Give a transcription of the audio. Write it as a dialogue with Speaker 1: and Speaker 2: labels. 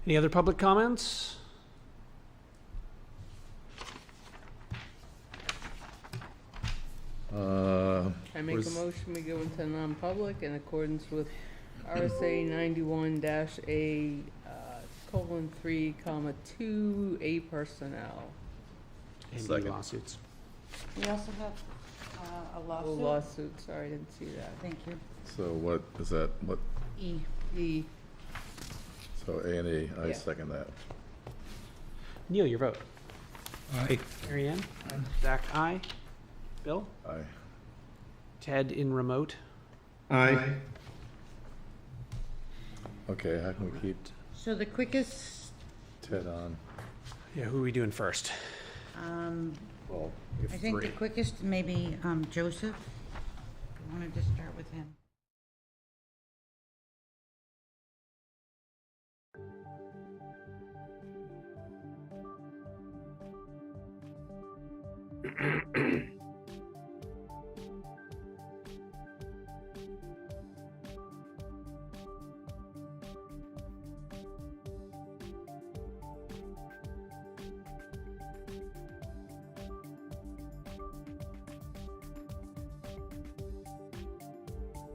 Speaker 1: Any other public comments?
Speaker 2: Uh,
Speaker 3: I make a
Speaker 2: Was-
Speaker 3: motion, we go into non-public in accordance with RSA ninety-one dash A, uh, colon, three, comma, two, A personnel.
Speaker 1: Any
Speaker 2: Second.
Speaker 1: lawsuits?
Speaker 4: We also have uh, a
Speaker 3: Oh,
Speaker 4: lawsuit.
Speaker 3: Lawsuit, sorry, I didn't see that.
Speaker 4: Thank you.
Speaker 2: So what is that, what,
Speaker 4: E.
Speaker 3: E,
Speaker 2: so A and E, I
Speaker 3: Yeah.
Speaker 2: second that.
Speaker 1: Neil, your vote.
Speaker 5: Aye.
Speaker 1: Mary Ann? Zach, aye. Bill?
Speaker 2: Aye.
Speaker 1: Ted in remote?
Speaker 5: Aye.
Speaker 2: Okay, how can we keep
Speaker 4: So the quickest,
Speaker 2: Ted on?
Speaker 1: Yeah, who are we doing first?
Speaker 4: um,
Speaker 2: Well,
Speaker 4: I think the quickest may be um, Joseph. I wanted to start with him.